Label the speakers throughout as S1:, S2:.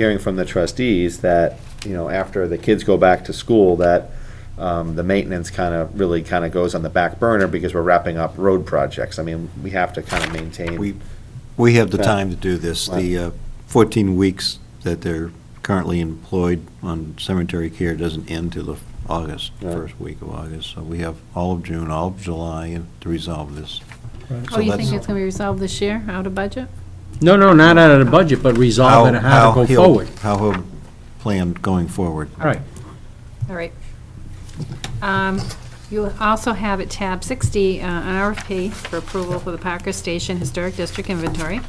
S1: hearing from the trustees that, you know, after the kids go back to school, that um, the maintenance kind of, really kind of goes on the back burner because we're wrapping up road projects. I mean, we have to kind of
S2: We-
S1: maintain.
S2: We have the
S1: Yeah.
S2: time to do this. The uh, 14 weeks that they're currently employed on cemetery care doesn't end till the August,
S1: Yeah.
S2: first week of August. So we have all of June, all of July and to resolve this.
S3: Oh,
S2: So
S3: you
S2: that's-
S3: think it's going to be resolved this year, out of budget?
S4: No, no, not out of the budget, but resolve it and how to go
S2: he'll-
S4: forward.
S2: How he'll plan going forward.
S4: All right.
S3: All right. Um, You also have at tab 60, uh, an RFP for approval for the Parker Station Historic District Inventory.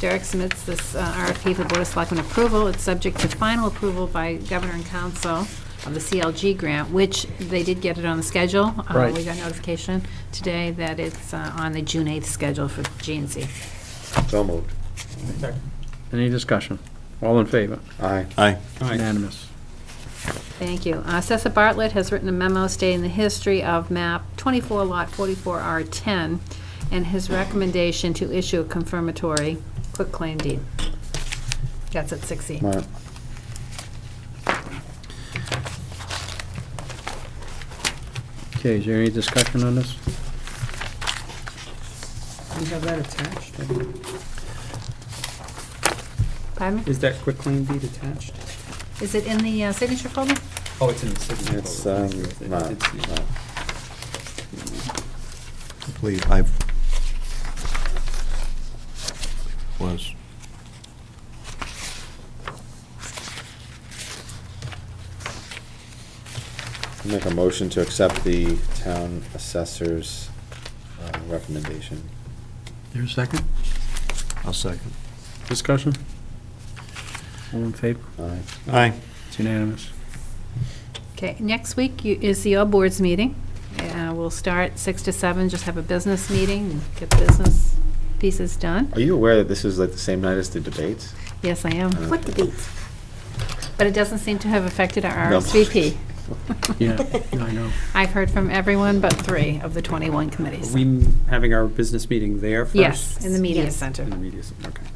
S3: Derek submits this uh, RFP for Board of Selectmen approval. It's subject to final approval by Governor and Council of the CLG grant, which they did get it on the schedule. Uh,
S4: Right.
S3: We got notification today that it's uh, on the June 8th schedule for GNC.
S1: So moved.
S4: Any discussion? All in favor?
S1: Aye.
S2: Aye.
S4: Unanimous.
S3: Thank you. Uh, Sessa Bartlett has written a memo stating the history of map 24 lot 44R10 and his recommendation to issue a confirmatory quitclaim deed. That's at E. 60.
S1: All right.
S4: Okay, is there any discussion on this?
S5: Do you have that attached?
S3: Pardon me?
S5: Is that quick claim deed attached?
S3: Is it in the uh, signature folder?
S5: Oh, it's in the signature.
S1: It's,
S5: folder.
S1: um,
S5: It's- it's-
S1: not,
S5: it's-
S1: not.
S2: Please, I was.
S1: I'll Make a motion to accept the town assessor's uh, recommendation.
S4: There's a second?
S2: I'll second.
S4: Discussion? All in favor?
S1: Aye.
S2: Aye.
S4: It's unanimous.
S3: Okay, next week you- is the all boards meeting. Uh, We'll start 6 to 7, just have a business meeting, and get business pieces done.
S1: Are you aware that this is like the same night as the debates?
S3: Yes, I am.
S1: What
S3: debates? But it doesn't seem to have affected our
S1: No.
S3: RSVP.
S4: Yeah, I know.
S3: I've heard from everyone but three of the 21
S5: Are
S3: committees.
S5: we m- having our business meeting there first?
S3: Yes, in the media
S6: Yes.
S3: center.
S5: In the media, center, okay.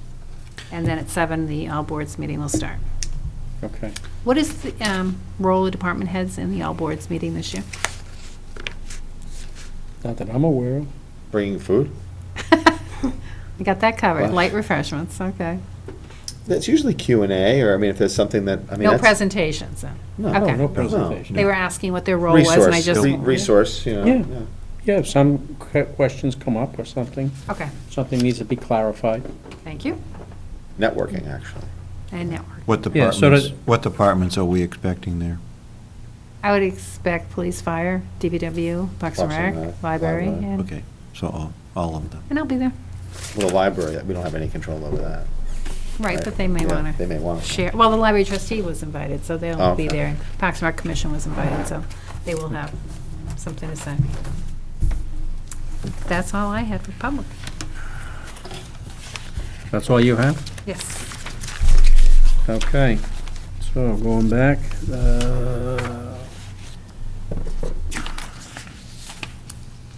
S3: And then at 7, the all boards meeting will start.
S4: Okay.
S3: What is the um, role of department heads in the all boards meeting this year?
S4: Not that I'm aware of.
S1: Bringing food?
S3: I got that covered.
S1: Well-
S3: Light refreshments, okay.
S1: That's usually Q and A, or I mean, if there's something that, I mean.
S3: No
S1: that's-
S3: presentations, then.
S1: No,
S3: Okay.
S4: No presentation.
S3: They were asking what their role was, and I
S1: Resource,
S3: just.
S1: re- resource, you know.
S4: Yeah. Yeah, if some que- questions come up or something,
S3: Okay,
S4: something needs to be clarified.
S3: thank you.
S1: yeah. Networking, actually.
S3: And network.
S2: What
S4: Yeah, so
S2: departments,
S4: does-
S2: what departments are we expecting there?
S3: I would expect police, fire, DPW, Parks
S1: Parks and
S3: and Rec,
S1: Rec,
S3: library,
S1: library.
S3: and
S2: Okay, so all, all of them.
S3: and I'll be there.
S1: Well, the library, we don't have any control over that.
S3: Right, but they may
S1: Yeah,
S3: want to.
S1: They may want to.
S3: share, well, the library trustee was invited, so they'll be
S1: Okay.
S3: there. Parks and Rec Commission was invited, so they will have something to say. That's all I had for public.
S4: That's all you have?
S3: Yes.
S4: Okay. So going back, uh,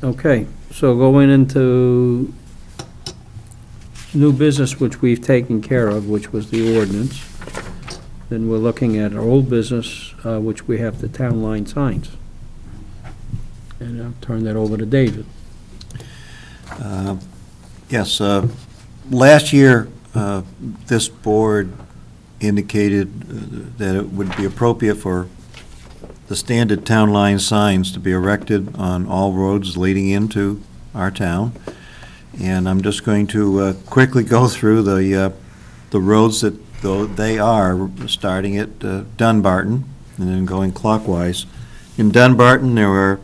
S4: okay, so going into new business, which we've taken care of, which was the ordinance. Then we're looking at our old business, uh, which we have the town line signs. And I'll turn that over to David.
S2: Uh, Yes, uh, last year, uh, this board indicated uh, that it would be appropriate for the standard town line signs to be erected on all roads leading into our town. And I'm just going to uh, quickly go through the, uh, the roads that, though they are, starting at uh, Dunbarton and then going clockwise. In Dunbarton, there were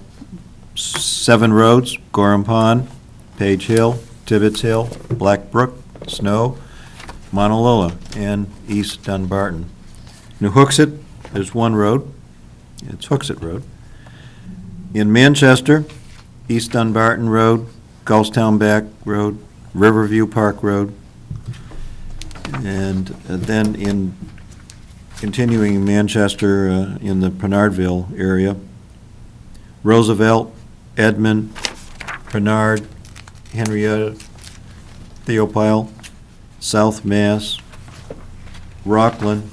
S2: seven roads, Gorham Pond, Page Hill, Tibbetts Hill, Black Brook, Snow, Monalola, and East Dunbarton. New Hooksett, there's one road, it's Hooksett Road. In Manchester, East Dunbarton Road, Gulfstown Back Road, Riverview Park Road. And uh, then in, continuing Manchester, uh, in the Penardville area, Roosevelt, Edmund, Bernard, Henrietta, Theopile, South Mass, Rockland,